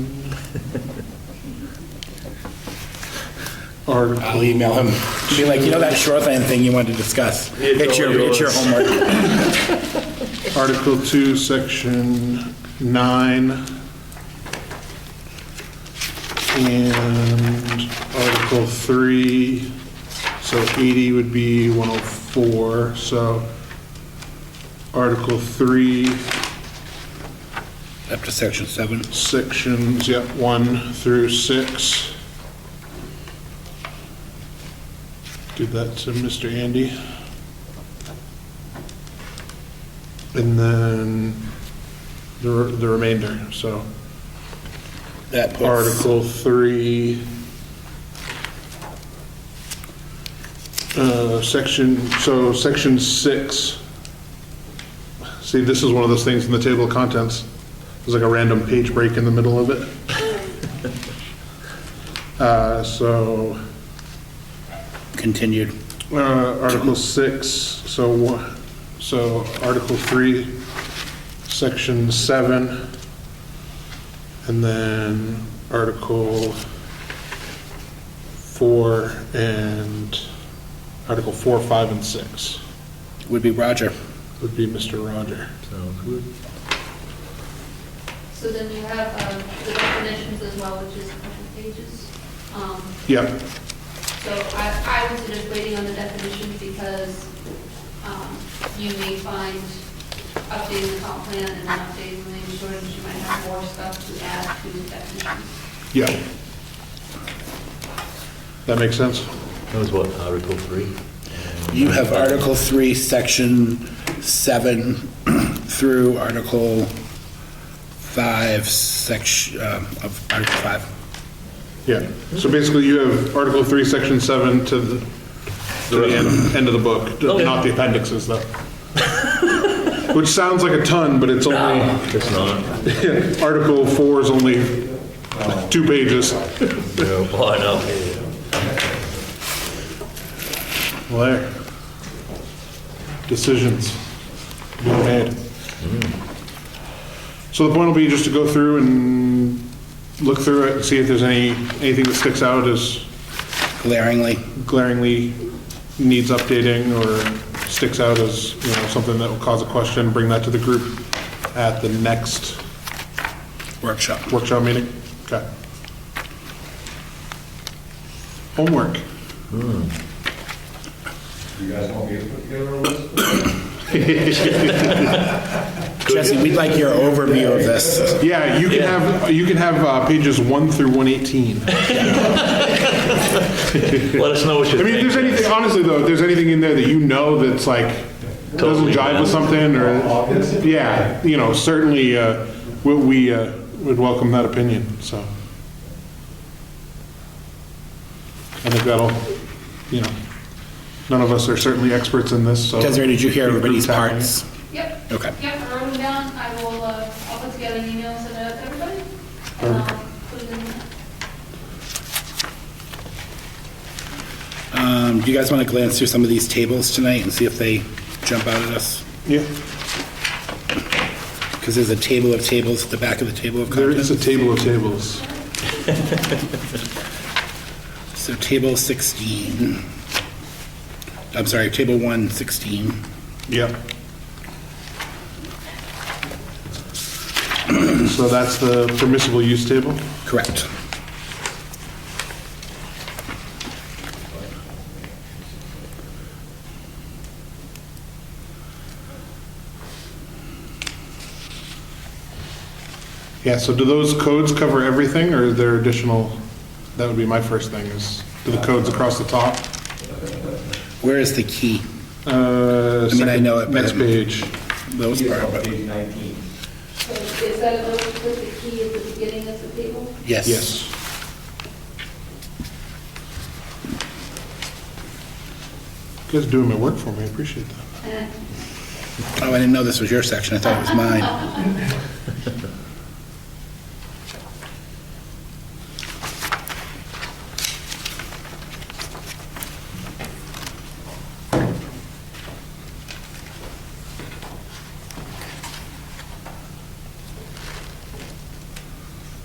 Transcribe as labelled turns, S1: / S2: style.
S1: Or,
S2: I'll email him, be like, you know that shoreline thing you wanted to discuss? It's your, it's your homework.
S3: Article 2, Section 9, and Article 3, so 80 would be 104, so Article 3,
S2: Up to section seven.
S3: sections, yep, 1 through 6. Give that to Mr. Andy. And then the re- the remainder, so
S2: That puts-
S3: Article 3, uh, Section, so Section 6. See, this is one of those things in the table of contents. There's like a random page break in the middle of it. Uh, So,
S2: Continued.
S3: uh, Article 6, so, one- so Article 3, Section 7, and then Article 4 and, Article 4, 5, and 6
S2: Would be Roger.
S3: would be Mr. Roger.
S4: So then you have um, the definitions as well, which is a couple pages. Um,
S3: Yep,
S4: So I, I was just waiting on the definitions because um, you may find updating the comp plan and then updating the land shortage, you might have more stuff to add to the definitions.
S3: yep. That makes sense?
S5: That was what, uh, Article 3?
S2: You have Article three, section seven through Article five, section, um, of Article five.
S3: Yeah, so basically you have Article 3, Section 7 to the, to the end, end of the book, not the appendixes though. Which sounds like a ton, but it's only,
S5: It's not.
S3: Article 4 is only two pages.
S5: No, well, I know.
S3: Well, there. Decisions being made. Mm. So the point will be just to go through and look through it and see if there's any, anything that sticks out as
S2: glaringly.
S3: glaringly needs updating or sticks out as, you know, something that will cause a question, bring that to the group at the next
S2: Workshop.
S3: workshop meeting? Okay. Homework.
S6: You guys want me to put together a list?
S2: Jesse, we'd like your overview of this.
S3: Yeah, you can have, you can have uh, pages 1 through 118. I
S5: Let us know what
S3: mean, if
S5: you think.
S3: there's anything, honestly though, if there's anything in there that you know that's like, doesn't
S5: Totally
S3: jive with something or, yeah, you know, certainly, uh, we- we uh, would welcome that opinion, so. I think that'll, you know, none of us are certainly experts in this, so.
S2: Desiree, did you hear everybody's
S3: Tackling.
S2: parts?
S4: Yep.
S2: Okay.
S4: Yep, I wrote them down, I will, uh, I'll put together an email, and send it out to everybody. and I'll put it in there.
S2: Um, do you guys want to glance through some of these tables tonight and see if they jump out at us?
S3: Yeah,
S2: Because there's a table of tables at the back of the table of
S3: there is
S2: contents.
S3: a table of tables.
S2: So table 16. I'm sorry, table 116.
S3: Yep. So that's the permissible use table?
S2: Correct.
S3: Yeah, so do those codes cover everything, or are there additional, that would be my first thing, is, do the codes across the top?
S2: Where is the key?
S3: Uh,
S2: I mean, I know it, but-
S3: Next page.
S2: Those
S6: It's
S2: are,
S6: on
S2: but-
S6: page 19.
S4: So is that a little bit the key at the beginning of the table?
S2: yes.
S3: Yes. You guys are doing my work for me, I appreciate that.
S4: And
S2: Oh, I didn't know this was your section. I thought it was mine.